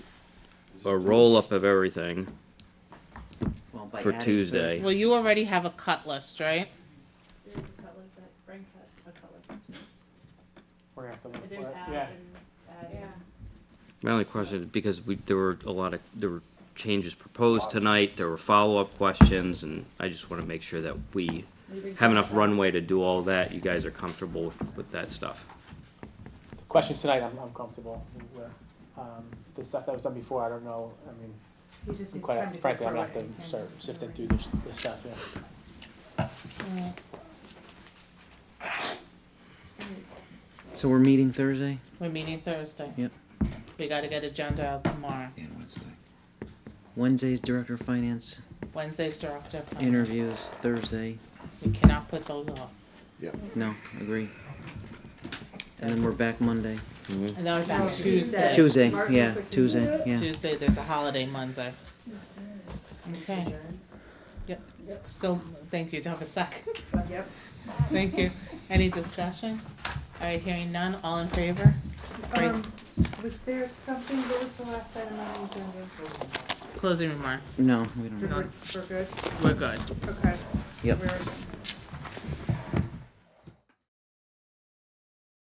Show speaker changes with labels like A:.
A: a roll up of everything
B: Well, by
A: for
B: adding
A: Tuesday.
C: Well, you already have a cut list, right?
D: There's a cut list that Frank cut, a cut list.
E: We're gonna have to look
D: But
E: for
D: There's
E: it.
D: add
E: Yeah,
D: and, add and.
F: Yeah.
A: My only question is because we, there were a lot of, there were changes proposed tonight, there were follow-up questions, and I just wanna make sure that we have enough runway to do all that, you guys are comfortable with, with that stuff.
E: questions tonight, I'm, I'm comfortable with, um, the stuff that was done before, I don't know, I mean,
F: He just needs time
E: quite
F: to go
E: frankly, I'm gonna have
F: through it
E: to
F: and-
E: start sifting through this, this stuff, yeah.
B: So we're meeting Thursday
C: We're meeting Thursday.
B: Yep.
C: We gotta get agenda out tomorrow.
B: and Wednesday. Wednesday's Director of Finance
C: Wednesday's director. of finance.
B: interviews, Thursday,
C: We cannot put those off.
B: no, agree. And then we're back Monday,
C: And then we're
F: No,
C: back
F: Tuesday.
C: Tuesday.
B: Tuesday,
F: March
B: yeah,
F: is like-
B: Tuesday, Mm-hmm. yeah.
C: Tuesday, there's a holiday Monday. Okay, so, thank you, do you have a sec?
F: Yep.
C: Thank you. Any discussion? All right, hearing none, all in favor? Great.
F: Um, was there something, what was the last item on the agenda?
C: Closing remarks.
B: No, we don't.
F: We're
C: None.
F: good, we're good,
C: We're good.
F: okay.
B: Yep.
F: We're-